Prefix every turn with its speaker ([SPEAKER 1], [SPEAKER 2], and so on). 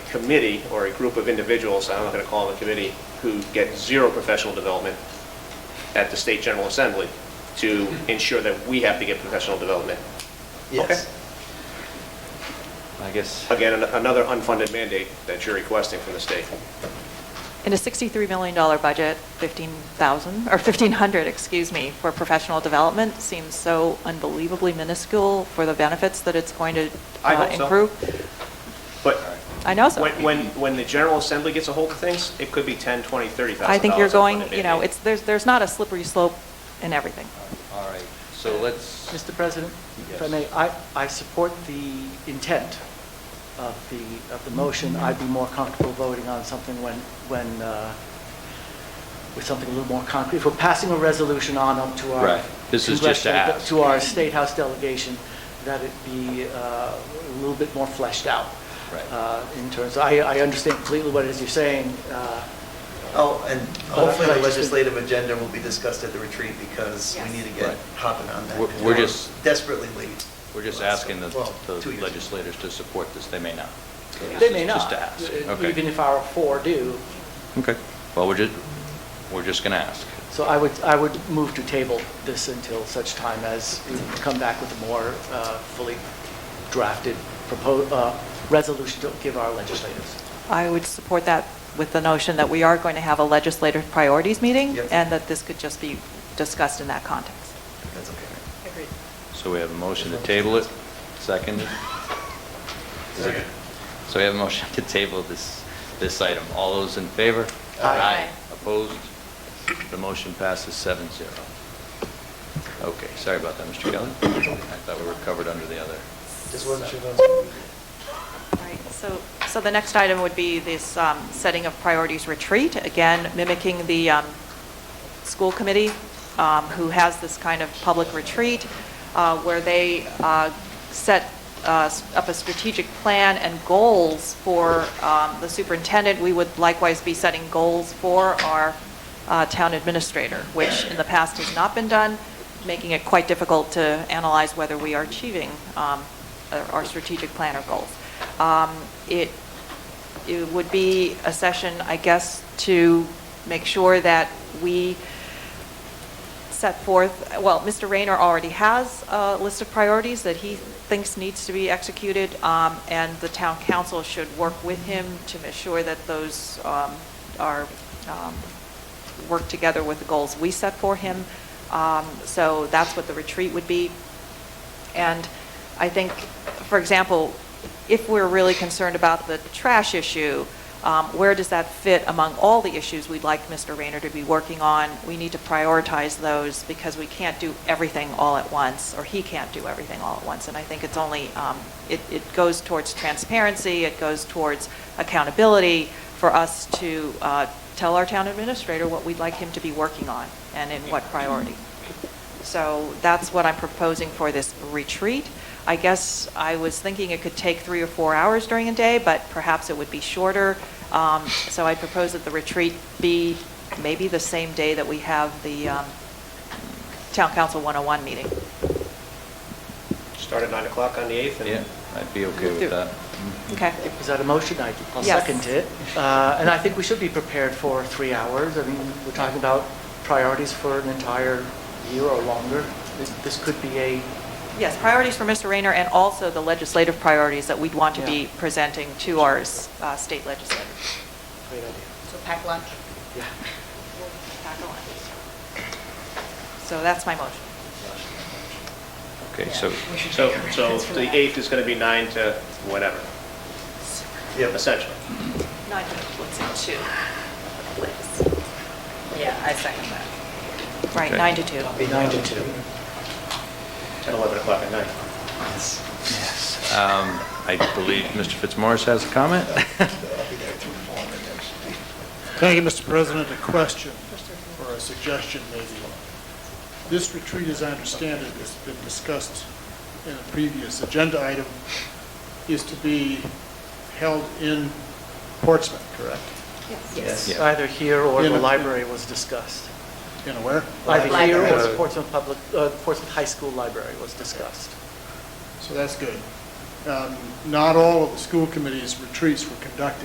[SPEAKER 1] committee or a group of individuals, I'm not going to call them a committee, who get zero professional development at the State General Assembly to ensure that we have to get professional development.
[SPEAKER 2] Yes.
[SPEAKER 3] I guess,
[SPEAKER 1] Again, an- another unfunded mandate that you're requesting from the state.
[SPEAKER 4] In a $63 million budget, 15,000, or 1,500, excuse me, for professional development seems so unbelievably minuscule for the benefits that it's going to
[SPEAKER 1] I
[SPEAKER 4] uh,
[SPEAKER 1] hope so.
[SPEAKER 4] improve.
[SPEAKER 1] But
[SPEAKER 4] I know so.
[SPEAKER 1] when, when, when the General Assembly gets a hold of things, it could be 10, 20, 30,000
[SPEAKER 4] I think you're
[SPEAKER 1] unfunded
[SPEAKER 4] going, you know,
[SPEAKER 1] mandate.
[SPEAKER 4] it's, there's, there's not a slippery slope in everything.
[SPEAKER 3] all right, so let's.
[SPEAKER 2] Mr. President, if I
[SPEAKER 3] Yes.
[SPEAKER 2] may, I, I support the intent of the, of the motion. I'd be more comfortable voting on something when, when, uh, with something a little more concrete. If we're passing a resolution on up to our.
[SPEAKER 3] Right. This is just to
[SPEAKER 2] congressional-
[SPEAKER 3] ask.
[SPEAKER 2] To our State House delegation, that it be uh, a little bit more fleshed out.
[SPEAKER 3] Right.
[SPEAKER 2] uh, In terms, I, I understand completely what it is you're saying. uh,
[SPEAKER 5] Oh, and hopefully
[SPEAKER 2] But I
[SPEAKER 5] the
[SPEAKER 2] just-
[SPEAKER 5] legislative agenda will be discussed at the retreat because we need to get
[SPEAKER 3] Right.
[SPEAKER 5] hopping on that.
[SPEAKER 3] We're- we're just-
[SPEAKER 5] Desperately late.
[SPEAKER 3] We're just
[SPEAKER 5] Last-
[SPEAKER 3] asking the
[SPEAKER 5] well,
[SPEAKER 3] the
[SPEAKER 5] two years.
[SPEAKER 3] legislators to support this, they may not. So this
[SPEAKER 2] They
[SPEAKER 3] is
[SPEAKER 2] may
[SPEAKER 3] just
[SPEAKER 2] not,
[SPEAKER 3] to ask.
[SPEAKER 2] uh,
[SPEAKER 3] Okay.
[SPEAKER 2] even if our four do.
[SPEAKER 3] Okay, well, we're just, we're just going to ask.
[SPEAKER 2] So I would, I would move to table this until such time as we come back with a more uh, fully drafted propo uh, resolution to give our legislators.
[SPEAKER 4] I would support that with the notion that we are going to have a legislative priorities meeting,
[SPEAKER 5] Yep.
[SPEAKER 4] and that this could just be discussed in that context.
[SPEAKER 5] That's okay.
[SPEAKER 4] Agreed.
[SPEAKER 3] So we have a motion to table it, second. So we have a motion to table this, this item. All those in favor?
[SPEAKER 2] Aye. Aye.
[SPEAKER 3] Opposed? The motion passes seven zero. Okay, sorry about that, Mr. Kelly. I thought we were covered under the other.
[SPEAKER 5] Just wasn't sure. if that was-
[SPEAKER 4] Right, so, so the next item would be this um, setting of priorities retreat, again mimicking the um, school committee, um, who has this kind of public retreat, uh, where they uh, set uh, s- up a strategic plan and goals for um, the superintendent. We would likewise be setting goals for our uh, town administrator, which in the past has not been done, making it quite difficult to analyze whether we are achieving um, our our strategic plan or goals. Um, It it would be a session, I guess, to make sure that we set forth, well, Mr. Rayner already has a list of priorities that he thinks needs to be executed, um, and the town council should work with him to ensure that those um, are, um, work together with the goals we set for him. Um, So that's what the retreat would be. And I think, for example, if we're really concerned about the trash issue, um, where does that fit among all the issues we'd like Mr. Rayner to be working on? We need to prioritize those because we can't do everything all at once, or he can't do everything all at once. And I think it's only, um, it it goes towards transparency, it goes towards accountability for us to uh, tell our town administrator what we'd like him to be working on and in what priority. So that's what I'm proposing for this retreat. I guess I was thinking it could take three or four hours during a day, but perhaps it would be shorter. Um, So I propose that the retreat be maybe the same day that we have the um, Town Council 101 meeting.
[SPEAKER 1] Start at 9 o'clock on the 8th and
[SPEAKER 3] Yeah, I'd be okay with that.
[SPEAKER 4] Okay?
[SPEAKER 2] Is that a motion? I- I'll
[SPEAKER 4] Yes.
[SPEAKER 2] second it. Uh, And I think we should be prepared for three hours. I mean, we're talking about priorities for an entire year or longer. This- This could be a,
[SPEAKER 4] Yes, priorities for Mr. Rayner and also the legislative priorities that we'd want to be
[SPEAKER 2] Yeah.
[SPEAKER 4] presenting to our uh, state legislators.
[SPEAKER 2] great idea.
[SPEAKER 6] So pack lunch?
[SPEAKER 2] Yeah.
[SPEAKER 4] So that's my motion.
[SPEAKER 3] Okay, so,
[SPEAKER 6] We should
[SPEAKER 1] So,
[SPEAKER 6] take our
[SPEAKER 1] so
[SPEAKER 6] hands for
[SPEAKER 1] the
[SPEAKER 6] that.
[SPEAKER 1] 8th is going to be 9 to whatever,
[SPEAKER 5] Yep.
[SPEAKER 1] essentially.
[SPEAKER 4] Nine minutes, let's see, two.
[SPEAKER 6] Yeah, I second that.
[SPEAKER 4] Right,
[SPEAKER 3] Okay.
[SPEAKER 4] nine to two.
[SPEAKER 2] Be nine to two.
[SPEAKER 1] 10, 11 o'clock at night.
[SPEAKER 3] um, I believe Mr. Fitzmaurice has a comment?
[SPEAKER 7] Thank you, Mr. President. A question, or a suggestion maybe. This retreat, as I understand it, has been discussed in a previous agenda item, is to be held in Portsmouth, correct?
[SPEAKER 5] Yes.
[SPEAKER 3] Yeah.
[SPEAKER 2] Either here or
[SPEAKER 7] In
[SPEAKER 2] the
[SPEAKER 7] a-
[SPEAKER 2] library was discussed.
[SPEAKER 7] In a where?
[SPEAKER 2] Either here or the
[SPEAKER 5] Library.
[SPEAKER 2] Portsmouth Public, uh, Portsmouth High School Library was discussed.
[SPEAKER 7] So that's good. Um, Not all of the school committee's retreats were conducted